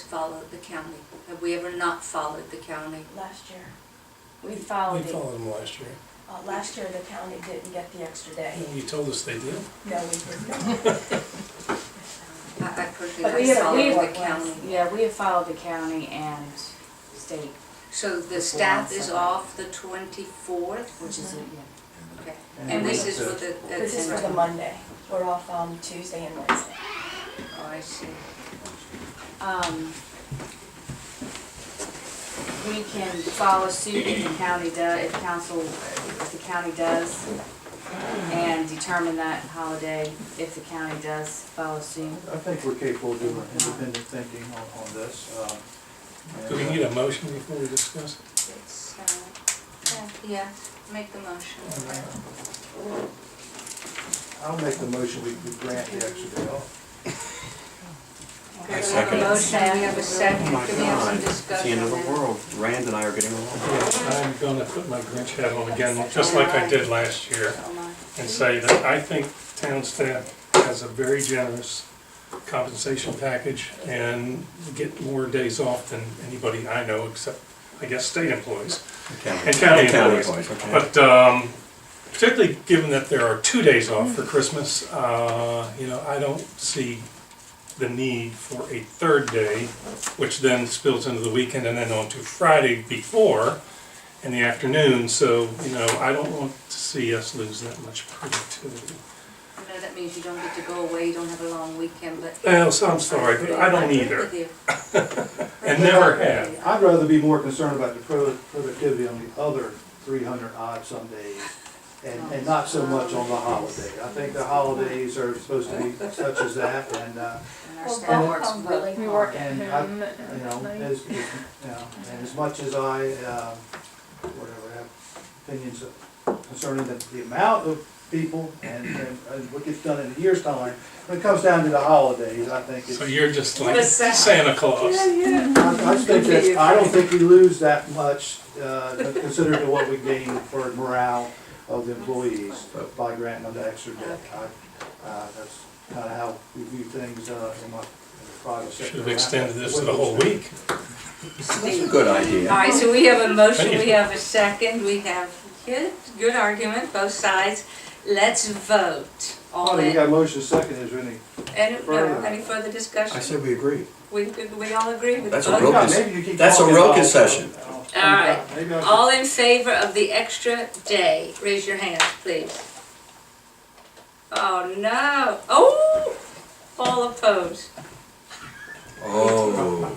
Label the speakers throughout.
Speaker 1: followed the county. Have we ever not followed the county?
Speaker 2: Last year,
Speaker 1: We
Speaker 3: We
Speaker 1: followed it.
Speaker 3: followed them last year.
Speaker 2: uh, last year the county didn't get the extra day.
Speaker 3: And you told us they did.
Speaker 2: No, we did not.
Speaker 1: I, I personally,
Speaker 2: But we
Speaker 1: I
Speaker 2: had a
Speaker 1: followed
Speaker 2: real
Speaker 1: the
Speaker 2: one.
Speaker 1: county.
Speaker 4: Yeah, we have followed the county and state,
Speaker 1: So the
Speaker 4: Before
Speaker 1: staff is
Speaker 4: Sunday.
Speaker 1: off the twenty-fourth?
Speaker 4: which is, a- yeah.
Speaker 1: Okay,
Speaker 5: And
Speaker 1: and this
Speaker 5: that's
Speaker 1: is for
Speaker 5: it.
Speaker 1: the.
Speaker 2: This is for
Speaker 1: that's-
Speaker 2: the Monday. We're off um, Tuesday and Wednesday.
Speaker 1: Oh, I see.
Speaker 4: Um, We can follow suit if the county does, if council, if the county does, and determine that holiday if the county does follow suit.
Speaker 5: I think we're capable of doing independent thinking on, on this. um, and,
Speaker 3: Do we
Speaker 5: uh,
Speaker 3: need a motion before we discuss?
Speaker 1: It's, uh, yeah, make the motion.
Speaker 5: I'll make the motion, we we grant the extra day off.
Speaker 1: Okay, we have a motion, we have a second,
Speaker 6: Oh my
Speaker 1: can we have some
Speaker 6: God, it's
Speaker 1: discussion?
Speaker 6: the end of
Speaker 1: on
Speaker 6: the
Speaker 1: that?
Speaker 6: world. Rand and I are getting along.
Speaker 3: Yeah, I'm gonna put my Grinch hat on again, just like I did last year,
Speaker 1: Oh, my.
Speaker 3: and say that I think town staff has a very generous compensation package and get more days off than anybody I know, except, I guess, state employees. And county employees.
Speaker 6: okay.
Speaker 3: But um, particularly given that there are two days off for Christmas, uh, you know, I don't see the need for a third day, which then spills into the weekend and then on to Friday before in the afternoon. So, you know, I don't want to see us lose that much productivity.
Speaker 1: I know that means you don't get to go away, you don't have a long weekend, but.
Speaker 3: Well, so I'm sorry, but I don't
Speaker 1: agree
Speaker 3: either.
Speaker 1: with you.
Speaker 3: And never have.
Speaker 5: I'd rather be more concerned about the pro- productivity on the other three hundred odd some days and, and not so much on the holiday. I think the holidays are supposed to be such as that and, uh,
Speaker 1: And our staff works well.
Speaker 2: We work.
Speaker 5: and I, you know, as, you know, and as much as I, uh, whatever, have opinions concerning the, the amount of people and, and and what gets done in a year's time, when it comes down to the holidays, I think it's.
Speaker 3: So you're just like Santa Claus.
Speaker 5: I I think that, I don't think we lose that much, uh, considering to what we gain for morale of the employees by granting them the extra day. I- Uh, that's kinda how we view things, uh, in my, in the private sector.
Speaker 3: Should have extended this to the whole week.
Speaker 6: That's a good
Speaker 1: All
Speaker 6: idea.
Speaker 1: right, so we have a motion,
Speaker 3: Thank
Speaker 1: we
Speaker 3: you.
Speaker 1: have a second, we have good, good argument, both sides. Let's vote. All
Speaker 5: Oh, you
Speaker 1: in,
Speaker 5: got a motion second, is there any?
Speaker 1: any, no,
Speaker 5: further.
Speaker 1: any further
Speaker 6: I
Speaker 1: discussion?
Speaker 6: said we agree.
Speaker 1: We, we all agree with
Speaker 6: That's a
Speaker 1: both?
Speaker 6: real con-
Speaker 5: Maybe you keep
Speaker 6: that's a
Speaker 5: talking,
Speaker 6: real
Speaker 5: I'll-
Speaker 6: concession.
Speaker 5: I'll-
Speaker 1: All right.
Speaker 5: Maybe I should-
Speaker 1: All in favor of the extra day, raise your hand, please. Oh, no, oh, all opposed.
Speaker 6: Oh,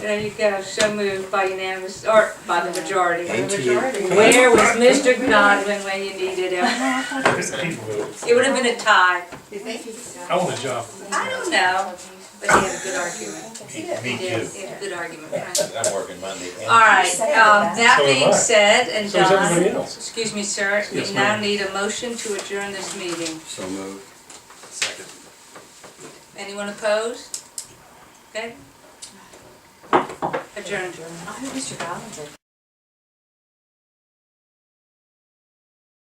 Speaker 1: There you go, so moved by unanimous, or by the majority.
Speaker 6: NTA.
Speaker 1: Where was Mr. Godwin when you needed him? It would have been a tie.
Speaker 3: I want a job.
Speaker 1: I don't know, but he had a good argument.
Speaker 7: Me
Speaker 1: He did,
Speaker 7: too.
Speaker 1: he had a good argument. All
Speaker 7: I'm working Monday and
Speaker 1: right, um, that
Speaker 3: So am
Speaker 1: being
Speaker 3: I.
Speaker 1: said, and
Speaker 3: So is everybody
Speaker 1: Don,
Speaker 3: else.
Speaker 1: excuse me, sir, we
Speaker 3: Yes,
Speaker 1: now
Speaker 3: ma'am.
Speaker 1: need a motion to adjourn this meeting.
Speaker 6: So moved.
Speaker 7: Second.
Speaker 1: Anyone opposed? Okay? Adjourned.
Speaker 4: Oh, I hope Mr. Collins